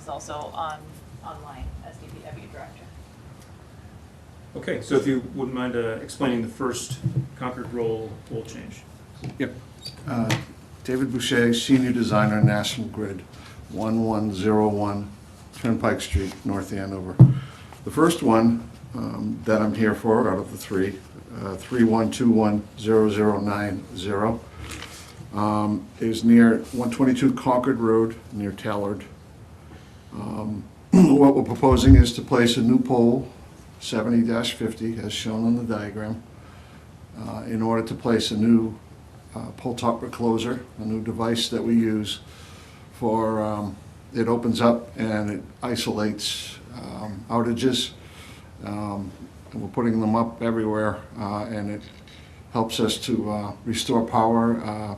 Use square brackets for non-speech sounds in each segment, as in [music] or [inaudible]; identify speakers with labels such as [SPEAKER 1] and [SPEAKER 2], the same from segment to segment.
[SPEAKER 1] is also on, online as DPW director.
[SPEAKER 2] Okay, so if you wouldn't mind uh, explaining the first Concord role role change.
[SPEAKER 3] Yep. Uh, David Boucher, Senior Designer, National Grid, 1101 Turnpike Street, North Andover. The first one um, that I'm here for out of the three, uh, 31210090, um, is near 122 Concord Road, near Tallard. Um, [clears throat] What we're proposing is to place a new pole, 70-50, as shown on the diagram uh, in order to place a new uh, pull top recloser, a new device that we use for, um, it opens up and it isolates um, outages. Um, And we're putting them up everywhere, uh, and it helps us to uh, restore power uh,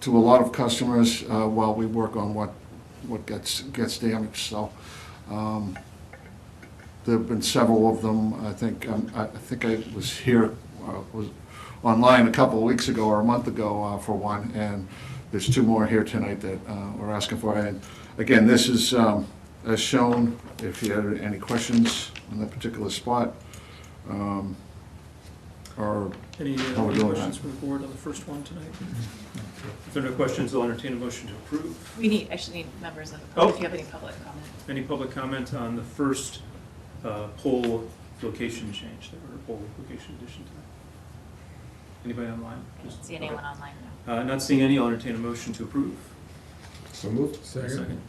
[SPEAKER 3] to a lot of customers uh, while we work on what, what gets, gets damaged. So um, There've been several of them, I think, um, I I think I was here, uh, was online a couple of weeks ago or a month ago uh, for one, and there's two more here tonight that uh, we're asking for. And again, this is, um, as shown, if you had any questions on that particular spot, um, or,
[SPEAKER 2] Any
[SPEAKER 3] How
[SPEAKER 2] uh,
[SPEAKER 3] we
[SPEAKER 2] any
[SPEAKER 3] doing?
[SPEAKER 2] questions from the board on the first one tonight? If there are no questions, I'll entertain a motion to approve.
[SPEAKER 1] We need, actually need members of the public, if you have any public comment.
[SPEAKER 2] Any public comment on the first uh, poll location change, or poll location addition to that? Anybody online?
[SPEAKER 1] I don't
[SPEAKER 2] Just-
[SPEAKER 1] see anyone online now.
[SPEAKER 2] Uh, Not seeing any, I'll entertain a motion to approve.
[SPEAKER 4] So moved.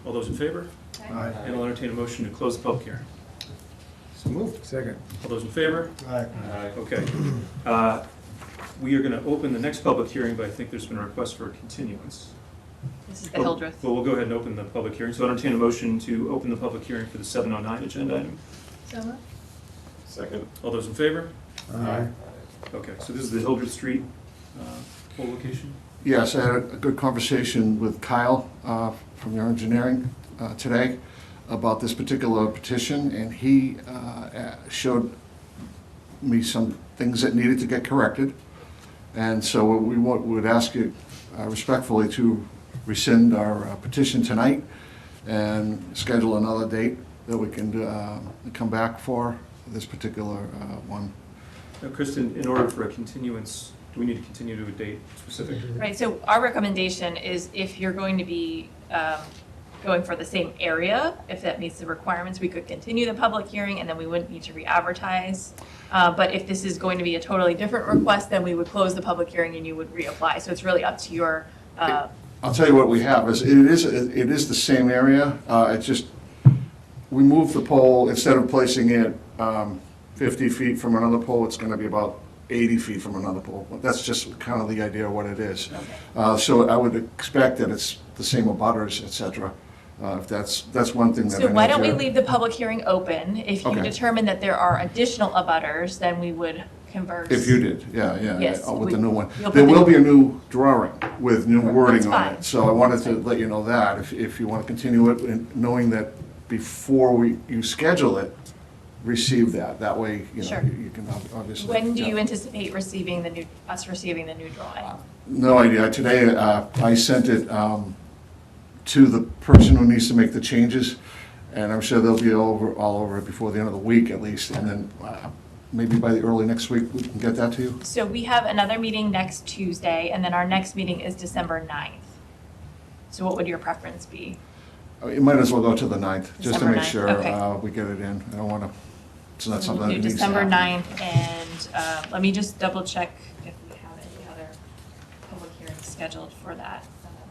[SPEAKER 2] All those in favor?
[SPEAKER 4] Aye.
[SPEAKER 2] And I'll entertain a motion to close the public hearing.
[SPEAKER 4] So moved. Second.
[SPEAKER 2] All those in favor?
[SPEAKER 4] Aye.
[SPEAKER 2] Okay. Uh, We are going to open the next public hearing, but I think there's been a request for a continuance. Oh,
[SPEAKER 1] This is the Hildreth.
[SPEAKER 2] Well, we'll go ahead and open the public hearing. So I entertain a motion to open the public hearing for the 709 agenda item.
[SPEAKER 1] So moved.
[SPEAKER 2] Second. All those in favor?
[SPEAKER 4] Aye.
[SPEAKER 2] Okay, so this is the Hildreth Street uh, poll location?
[SPEAKER 3] yes, I had a good conversation with Kyle uh, from your engineering uh, today about this particular petition, and he uh, uh, showed me some things that needed to get corrected. And so we wa- would ask you uh, respectfully to rescind our uh, petition tonight and schedule another date that we can uh, come back for this particular uh, one.
[SPEAKER 2] Now, Kristen, in order for a continuance, do we need to continue to a date specific?
[SPEAKER 1] Right, so our recommendation is if you're going to be um, going for the same area, if that meets the requirements, we could continue the public hearing and then we wouldn't need to re-advertise. Uh, But if this is going to be a totally different request, then we would close the public hearing and you would reapply. So it's really up to your, uh,
[SPEAKER 3] I'll tell you what we have, is it is, it is the same area, uh, it's just, we moved the pole, instead of placing it, um, fifty feet from another pole, it's gonna be about eighty feet from another pole. That's just kind of the idea of what it is. Uh, so I would expect that it's the same abutters, et cetera, uh, if that's, that's one thing that I
[SPEAKER 1] so why
[SPEAKER 3] know
[SPEAKER 1] don't we
[SPEAKER 3] Jared-
[SPEAKER 1] leave the public hearing open? If you
[SPEAKER 3] Okay.
[SPEAKER 1] determine that there are additional abutters, then we would converse.
[SPEAKER 3] If you did, yeah, yeah, yeah,
[SPEAKER 1] Yes,
[SPEAKER 3] oh, with the
[SPEAKER 1] we-
[SPEAKER 3] new one.
[SPEAKER 1] you'll put
[SPEAKER 3] There
[SPEAKER 1] the
[SPEAKER 3] will
[SPEAKER 1] new-
[SPEAKER 3] be a new drawing with new wording on
[SPEAKER 1] fine.
[SPEAKER 3] it. So I wanted to let you know that, if, if you want to continue it, and knowing that before we, you schedule it, receive that. That way, you know,
[SPEAKER 1] Sure.
[SPEAKER 3] you you can ob- obviously.
[SPEAKER 1] When do you
[SPEAKER 3] yeah.
[SPEAKER 1] anticipate receiving the new, us receiving the new drawing?
[SPEAKER 3] No idea. Today, uh, I sent it um, to the person who needs to make the changes, and I'm sure they'll be over, all over it before the end of the week at least. And then uh, maybe by the early next week, we can get that to you.
[SPEAKER 1] So we have another meeting next Tuesday, and then our next meeting is December 9th. So what would your preference be?
[SPEAKER 3] Uh, It might as well go to the 9th, just to
[SPEAKER 1] December
[SPEAKER 3] make
[SPEAKER 1] 9th,
[SPEAKER 3] sure
[SPEAKER 1] okay.
[SPEAKER 3] uh, we get it in. I don't want to, it's not
[SPEAKER 1] So
[SPEAKER 3] something
[SPEAKER 1] we'll
[SPEAKER 3] that
[SPEAKER 1] do
[SPEAKER 3] needs to
[SPEAKER 1] December
[SPEAKER 3] happen.
[SPEAKER 1] 9th, and uh, let me just double check if we have any other public hearings scheduled for that, um,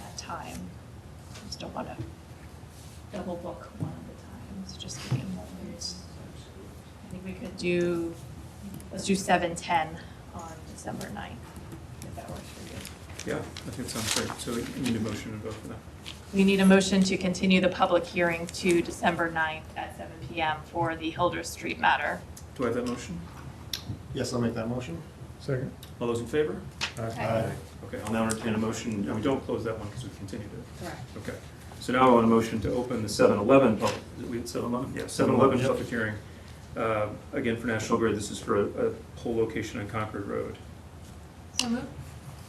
[SPEAKER 1] that time. I Just don't want to double book one at a time, so just give me a moment. I think we could do, let's do 7:10 on December 9th, if that works for you.
[SPEAKER 2] Yeah, I think that sounds great. So you need a motion to vote for that.
[SPEAKER 1] We need a motion to continue the public hearing to December 9th at seven PM for the Hildreth Street matter.
[SPEAKER 2] Do I have that motion?
[SPEAKER 4] Yes, I'll make that motion. Second.
[SPEAKER 2] All those in favor?
[SPEAKER 1] Aye.
[SPEAKER 2] Okay, I'll now entertain a motion, and we don't close that one because we continued it.
[SPEAKER 1] Correct.
[SPEAKER 2] Okay. So now I want a motion to open the 7-Eleven public, is it- we had 7-Eleven? Yeah, 7-Eleven
[SPEAKER 4] Yep.
[SPEAKER 2] public hearing. Uh, Again, for National Grid, this is for a a pole location on Concord Road.
[SPEAKER 1] So moved.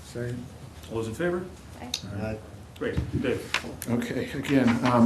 [SPEAKER 4] Second.
[SPEAKER 2] All those in favor?
[SPEAKER 4] Aye.
[SPEAKER 2] Great, Dave?
[SPEAKER 3] Okay, again, um,